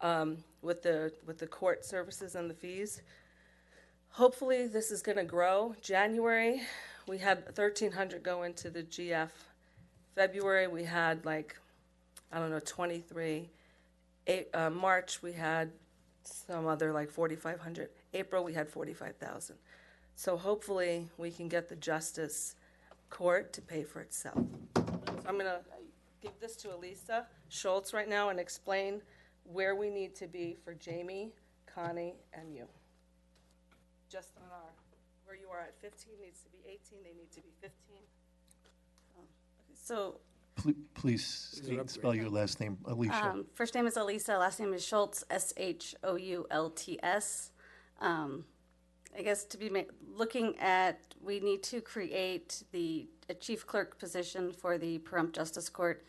um, with the, with the court services and the fees. Hopefully, this is gonna grow. January, we had thirteen hundred go into the GF. February, we had like, I don't know, twenty-three. A- uh, March, we had some other like 4,500. April, we had 45,000. So hopefully, we can get the justice court to pay for itself. So I'm going to give this to Elisa Schultz right now and explain where we need to be for Jamie, Connie, and you. Just on our, where you are at 15 needs to be 18, they need to be 15. So, Pl- Please state- spell your last name, Alicia. um, first name is Elisa, last name is Schultz, S H O U L T S. Um, I guess to be ma- looking at, we need to create the a chief clerk position for the Pahrump Justice Court,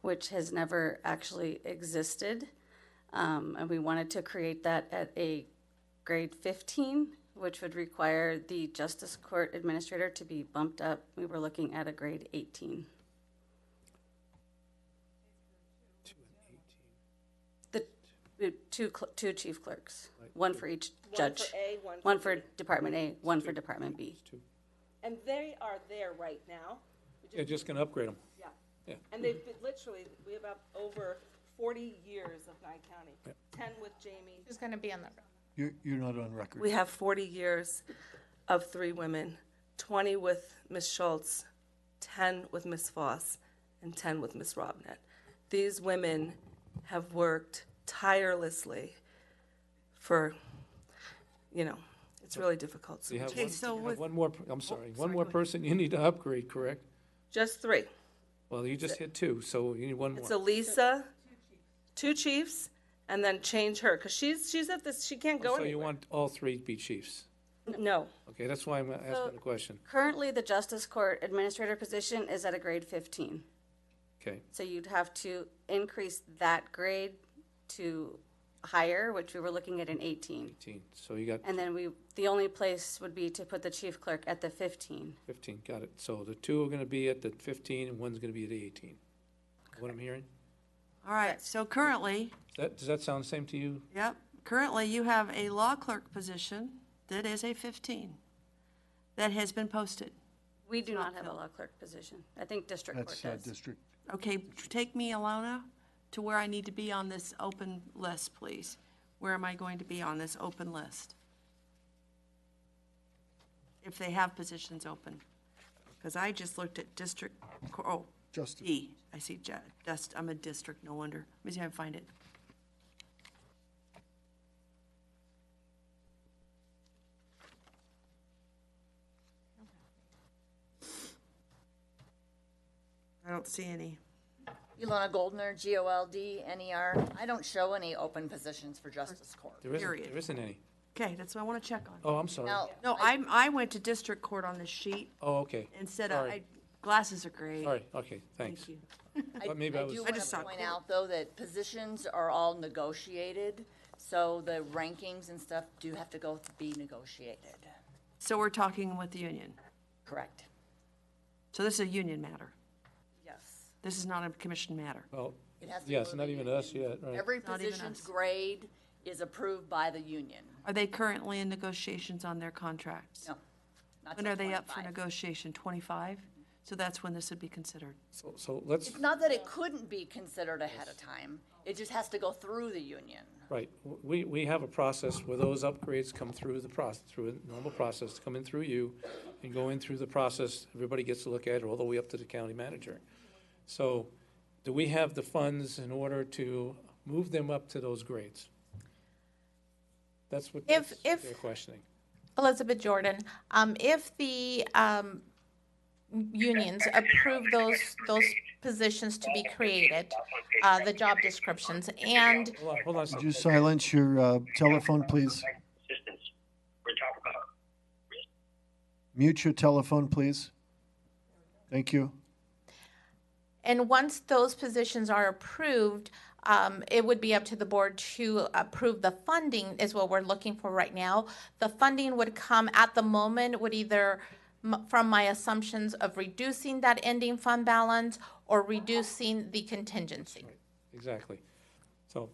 which has never actually existed. Um, and we wanted to create that at a grade 15, which would require the Justice Court Administrator to be bumped up. We were looking at a grade 18. The the two, cl- two chief clerks, one for each judge. One for A, one for One for Department A, one for Department B. And they are there right now. Yeah, just gonna upgrade them. Yeah. Yeah. And they've been, literally, we have up over 40 years of Nye County. 10 with Jamie. Who's going to be on the, You're, you're not on record. We have 40 years of three women, 20 with Ms. Schultz, 10 with Ms. Foss, and 10 with Ms. Robnett. These women have worked tirelessly for, you know, it's really difficult. You have Okay, one, so you have with- one more, I'm sorry, one more person you need to upgrade, correct? Just three. Well, you just hit two, so you need one It's more. Elisa, two chiefs, and then change her, because she's, she's at this, she can't go Oh, So you anywhere. want all three to be chiefs. No. Okay, that's why I'm asking the question. Currently, the Justice Court Administrator position is at a grade 15. Okay, So you'd have to increase that grade to higher, which we were looking at an 18. eighteen, so you got And then we, the only place would be to put the chief clerk at the 15. fifteen, got it. So the two are gonna be at the fifteen and one's gonna be at the eighteen. What I'm hearing? All right, so currently, Does that, does that sound the same to you? yep, currently you have a law clerk position that is a 15 that has been posted. We do not have a law clerk position. I think district court That's uh, does. District, Okay, take me, Alona, to where I need to be on this open list, please. Where am I going to be on this open list? If they have positions open. Because I just looked at district, co- oh, Justice. D. I see ju- just, I'm a district, no wonder. Let me see if I can find it. I don't see any. Ilona Goldner, G O L D N E R. I don't show any open positions for justice court. There isn't, Period. there isn't any. Okay, that's what I want to check on. Oh, I'm sorry. Now, No, I- I'm, I went to district court on this sheet Oh, okay. instead of, I, Sorry. glasses are great. Sorry, okay, thanks. Thank you. But maybe I I was, do I just saw want to point court. out, though, that positions are all negotiated, so the rankings and stuff do have to go to be negotiated. So we're talking with the union. Correct. So this is a union matter. Yes. This is not a commission matter. well, It has to yeah, go it's to not the even union. us yet, right? Every Not even position's us. grade is approved by the union. Are they currently in negotiations on their contracts? No. not When till are they up for 25. negotiation? Twenty-five? So that's when this would be considered. So, so let's. It's not that it couldn't be considered ahead of time. It just has to go through the union. Right, W- we, we have a process where those upgrades come through the process, through a normal process, come in through you and go in through the process, everybody gets to look at it, all the way up to the county manager. So, do we have the funds in order to move them up to those grades? That's what, that's If- what if- they're questioning. Elizabeth Jordan, um, if the, um, unions approve those, those positions to be created, uh, the job descriptions, and Hold on, hold on a could second. you silence your uh, telephone, please? assistance we're talking about. Mute your telephone, please. Thank you. And once those positions are approved, um, it would be up to the board to approve the funding is what we're looking for right now. The funding would come at the moment would either m- from my assumptions of reducing that ending fund balance or reducing the contingency. Exactly. So